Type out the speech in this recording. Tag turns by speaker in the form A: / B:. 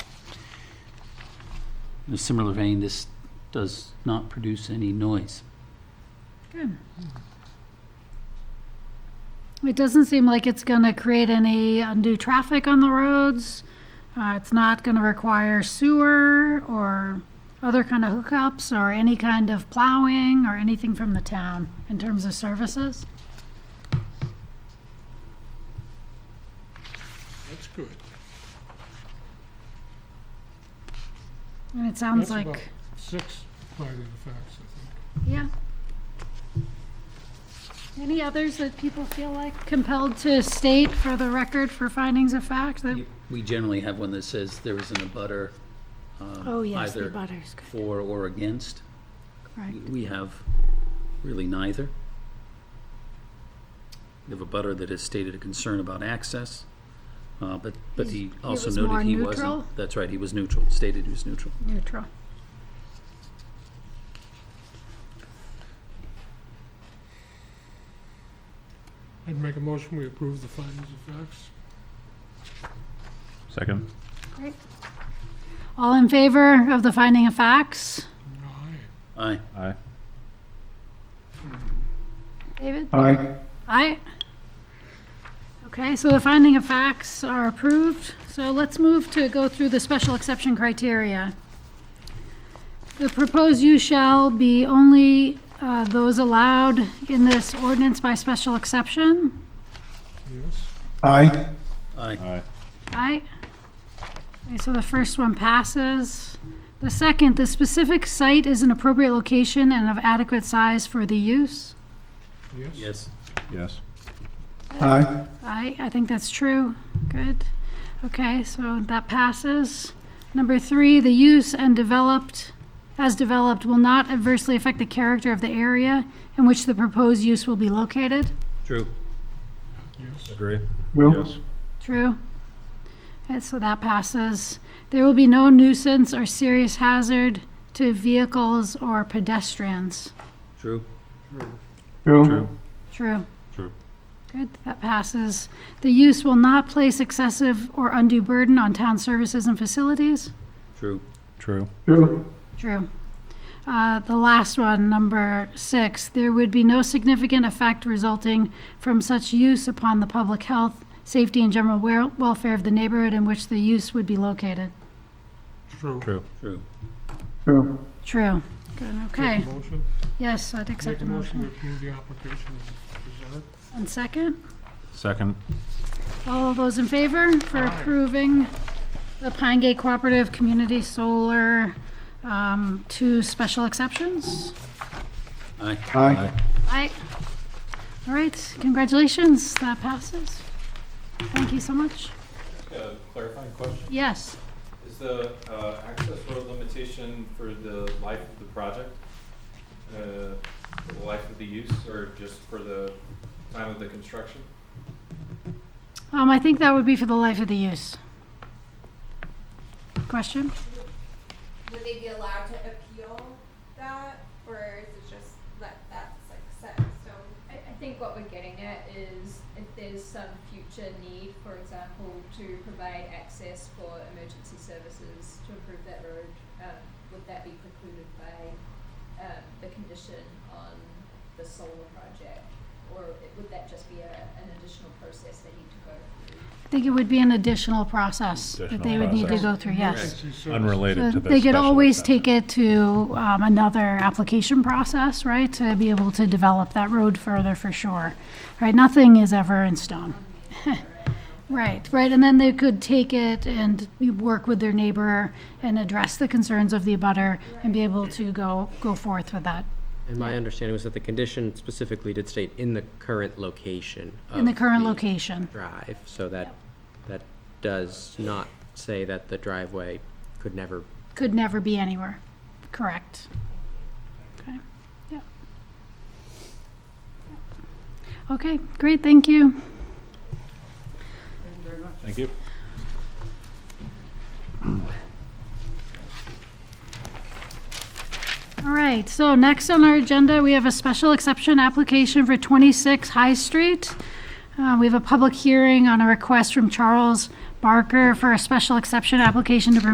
A: In a similar vein, this does not produce any noise.
B: Hmm. It doesn't seem like it's going to create any undue traffic on the roads. Uh, it's not going to require sewer or other kind of hookups or any kind of plowing or anything from the town in terms of services.
C: That's good.
B: And it sounds
C: That's about
B: like,
C: Six finding of facts, I
B: yeah. Any others that people feel like compelled to state for the record for findings of fact that,
A: We generally have one that says there is an abutter, um,
B: oh, yes, the
A: either
B: butters, good,
A: for or against.
B: right.
A: We have really neither. We have a butter that has stated a concern about access, uh, but, but he
B: He
A: also
B: was more
A: noted he wasn't.
B: neutral?
A: That's right, he was neutral, stated he was neutral.
B: Neutral.
C: think. I'd make a motion, we approve the findings of facts.
D: Second.
B: Great. All in favor of the finding of facts?
C: Aye.
A: Aye.
D: Aye.
B: David?
E: Aye.
B: Aye. Okay, so the finding of facts are approved. So let's move to go through the special exception criteria. The proposed use shall be only uh, those allowed in this ordinance by special exception.
C: Yes,
E: Aye.
A: Aye.
D: Aye.
B: Aye. Okay, so the first one passes. The second, the specific site is an appropriate location and of adequate size for the use.
C: yes.
A: Yes.
D: Yes.
E: Aye.
B: I, I think that's true. Good. Okay, so that passes. Number three, the use and developed, as developed, will not adversely affect the character of the area in which the proposed use will be located.
A: True.
C: Yes,
D: Agree.
E: Will?
D: Yes.
B: True. And so that passes. There will be no nuisance or serious hazard to vehicles or pedestrians.
A: True.
D: True.
B: True.
D: True.
B: Good, that passes. The use will not place excessive or undue burden on town services and facilities.
A: True.
D: True.
E: True.
B: True. Uh, The last one, number six, there would be no significant effect resulting from such use upon the public health, safety, and general wel- welfare of the neighborhood in which the use would be located.
C: true.
D: True.
A: True.
E: True.
B: True. Good, okay.
C: Make a motion,
B: Yes, I'd
C: make
B: accept
C: a
B: a
C: motion to
B: motion.
C: approve the application as presented.
B: And second,
D: Second.
B: all of those in favor for
C: Aye.
B: approving the Pine Gate Cooperative Community Solar um, two special exceptions?
A: Aye.
E: Aye.
B: Aye. All right, congratulations, that passes. Thank you so much.
F: A clarifying question,
B: Yes,
F: is the uh, access road limitation for the life of the project, uh, for the life of the use, or just for the time of the construction?
B: um, I think that would be for the life of the use. Question?
G: Would they be allowed to appeal that, or is it just that that's like set in stone?
H: I, I think what we're getting at is if there's some future need, for example, to provide access for emergency services to improve that road, um, would that be precluded by, um, the condition on the solar project? Or it- would that just be a, an additional process they need to go through?
B: I think it would be an additional process that they would need to go through, yes.
C: Emergency service.
D: Unrelated to the.
B: They could
D: special
B: always
D: exception.
B: take it to, um, another application process, right, to be able to develop that road further for sure. Right, nothing is ever in stone. Right, right, and then they could take it and you work with their neighbor and address the concerns of the abutter and be able to go, go forth with that
I: And my understanding was that the condition specifically did state in the current location of
B: in the current location.
I: Drive, so that, that does not say that the driveway could never
B: Could never be anywhere, correct? Okay, yeah. Okay, great, thank you.
D: Thank you.
B: All right, so next on our agenda, we have a special exception application for 26 High Street. Uh, We have a public hearing on a request from Charles Barker for a special exception application to permit